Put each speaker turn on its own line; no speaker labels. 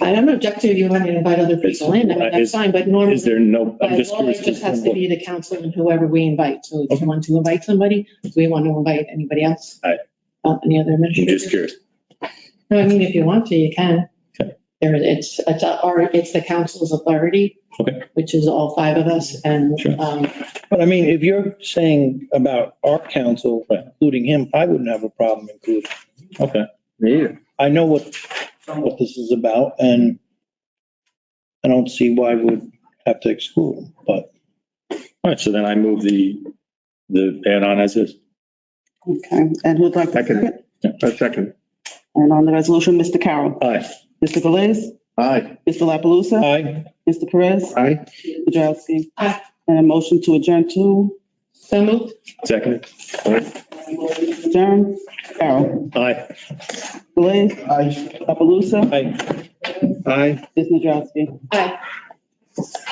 I don't object to you wanting to invite other people in, I mean,
Right,
that's
is-
fine, Um, but normally.
Is there no, I'm
By
just
law,
curious.
it just has to be the council and whoever we invite. So if you want to invite somebody, do we want to invite anybody else?
Aye.
Uh, Any other
I'm just
administrators?
curious.
No, I mean, if you want to, you can.
Okay.
There, it's, it's our, it's the council's authority.
Okay.
Which is all five of us and,
Sure.
um,
But I mean, if you're saying about our council,
Right.
including him, I wouldn't have a problem including.
Okay.
I know what, what this is about and I don't see why we'd have to exclude him, but
All right. So then I move the, the add-on as is.
Okay, and who'd like to second?
A second.
And on the resolution, Mr. Carroll,
Aye.
Mr. Galais,
Aye.
Mr. La Palusa,
I,
Mr. Perez,
Aye.
Mr. Drowsy.
Aye.
And a motion to adjourn to
so moved.
Second.
adjourn, Carroll,
Aye.
Galais,
Aye.
La Palusa,
I.
Aye.
Mr. Drowsy.
Aye.